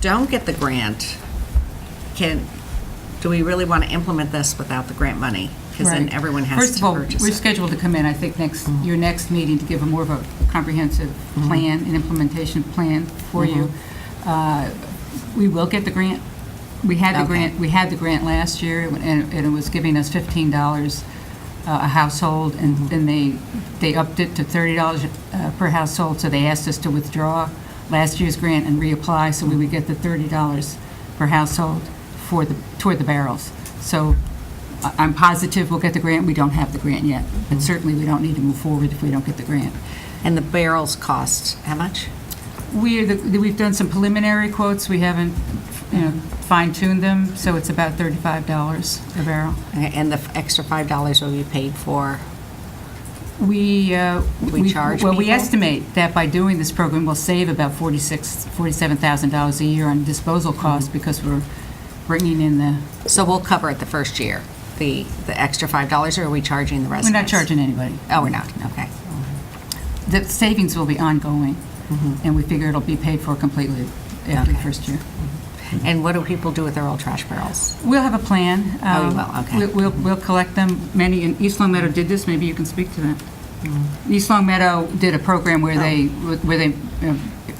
don't get the grant, can, do we really want to implement this without the grant money? Because then Right. everyone has First to of all, purchase we're it. scheduled to come in, I think, next, your next meeting to give a more of a comprehensive plan, an implementation plan for you. Uh, We will get the grant. We had the Okay. grant, we had the grant last year, and and it was giving us $15 a household, and then they, they upped it to $30 uh, per household, so they asked us to withdraw last year's grant and reapply, so we would get the $30 per household for the, toward the barrels. So I- I'm positive we'll get the grant. We don't have the grant yet, but certainly we don't need to move forward if we don't get the grant. And the barrels cost, how much? We, are the- we've done some preliminary quotes. We haven't, you know, fine-tuned them, so it's about $35 a barrel. Okay, And the extra $5 will be paid for, We, uh, We charge Well, we people? estimate that by doing this program, we'll save about $46,000, $47,000 a year on disposal costs because we're bringing in the, so we'll cover it the first year, the, the extra $5, or are we charging the we're residents? not charging anybody. Oh, we're not, okay. The savings will be ongoing, and we figure it'll be paid for completely after the Mm-hmm. Okay. first year. And what do people do with their old trash barrels? We'll have a plan. Oh, you Um, will, okay. we'll- We'll, we'll collect them. Many, in East Long Meadow did this, maybe you can speak to that. Mm. East Long Meadow did a program Oh. where they, where they uh,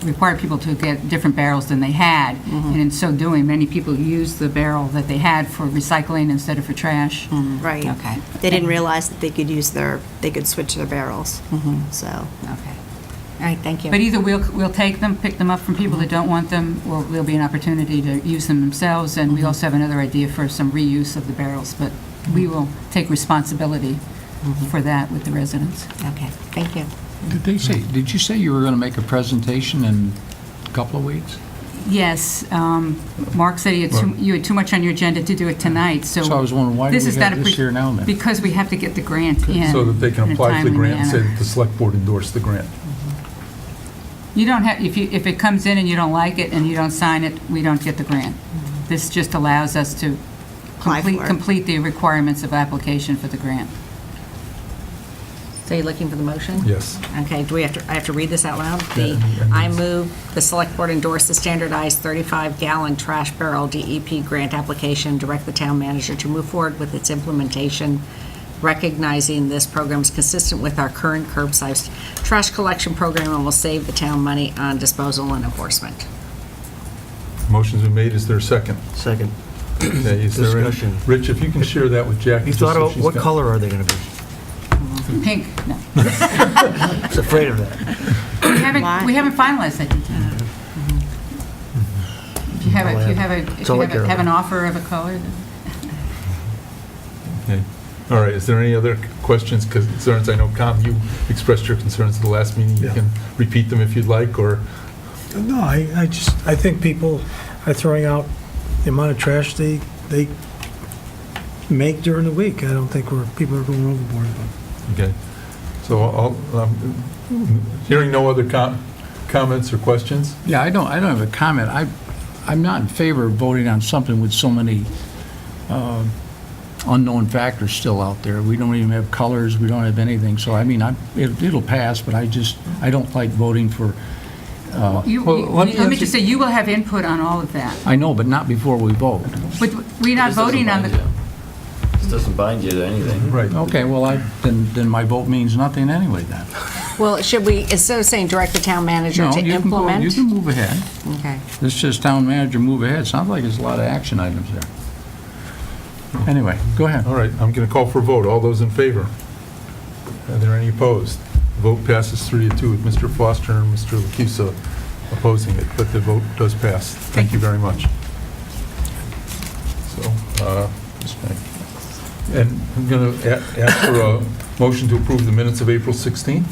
required people to get different barrels than they had, Mm-hmm. and in so doing, many people used the barrel that they had for recycling instead of for trash. Mm-hmm. Right. Okay. They didn't realize that they could use their, they could switch their barrels, so. Okay. All right, thank you. But either we'll, we'll take them, pick them up from people Mm-hmm. that don't want them, or there'll be an opportunity to use them themselves, and we Mm-hmm. also have another idea for some reuse of the barrels, but Mm-hmm. we will take responsibility for that with the residents. Okay, thank you. Did they say, did you say you were going to make a presentation in a couple of weeks? Yes, um, Mark said he had too- you had too much on your agenda to do it tonight, so. So I was wondering, why do we is have not a this pre- here now then? Because we have to get the grant in. So that they can in a apply for the timely grant and say manner. that the select board endorsed the grant. You don't have, if you, if it comes in and you don't like it and you don't sign it, we don't get the grant. This just allows us to Apply complete, for it. complete the requirements of application for the grant. So you're looking for the motion? Yes. Okay, do we have to, I have to read this out loud? Yeah, The, I mean, I move the Select Board endorse the standardized 35-gallon trash barrel DEP grant application, direct the town manager to move forward with its implementation, recognizing this program is consistent with our current curbside trash collection program and will save the town money on disposal and enforcement. Motion's been made, is there a second? Second. Okay, is there any- Discussion. Rich, if you can share that with Jackie. You just thought so about she's what got- color are they going to be? Pink, no. I was afraid of that. We haven't, Why? Mm-hmm. we haven't finalized that detail. If you have, a- if you have, a if That's you all I have care a- have an about. offer of a color, then. Okay. All right, is there any other questions, concerns? I know, Com, you expressed your concerns at the last meeting. You Yeah. can repeat them if you'd like, or, No, I, I just, I think people are throwing out the amount of trash they, they make during the week. I don't think we're, people are going overboard. okay. So I'll, um, hearing no other com- comments or questions? Yeah, I don't, I don't have a comment. I, I'm not in favor of voting on something with so many uh, unknown factors still out there. We don't even have colors, we don't have anything, so I mean, I, it- it'll pass, but I just, I don't like voting for, uh, You- Well, you- let me Let me ask just say, you- you will have input on all of that, I know, but not before we vote. but we're not voting on the, This doesn't bind you to anything. Right. Okay, well, I, then, then my vote means nothing anyway then. Well, should we, instead of saying direct the town manager No, to you can go- You implement? can move ahead. Okay. This says town manager move ahead. Sounds like there's a lot of action items there. Anyway, go ahead. All right, I'm going to call for a vote. All those in favor? Are there any opposed? The Vote passes three to two with Mr. Foster and Mr. Lucusa opposing it, but the vote does pass. Thank you very much. So, uh, just thank you. and I'm going to ask for a motion to approve the minutes of April 16th.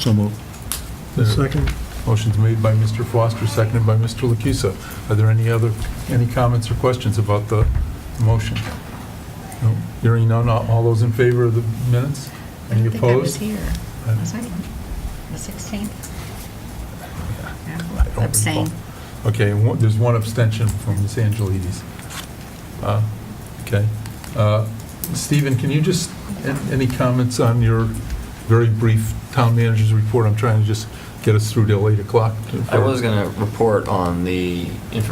So move. Second, Motion's made by Mr. Foster, seconded by Mr. Lucusa. Are there any other, any comments or questions about the motion? No. Hearing none, all all those in favor of the minutes? Any opposed? Uh, I was here. Was I? The 16th? I don't recall. Abstain. Okay, and one- there's one abstention from Ms. Angelides. Uh, Okay. Uh, Stephen, can you just, a- any comments on your very brief town manager's report? I'm trying to just get us through till 8 o'clock. I was going to report on the infor-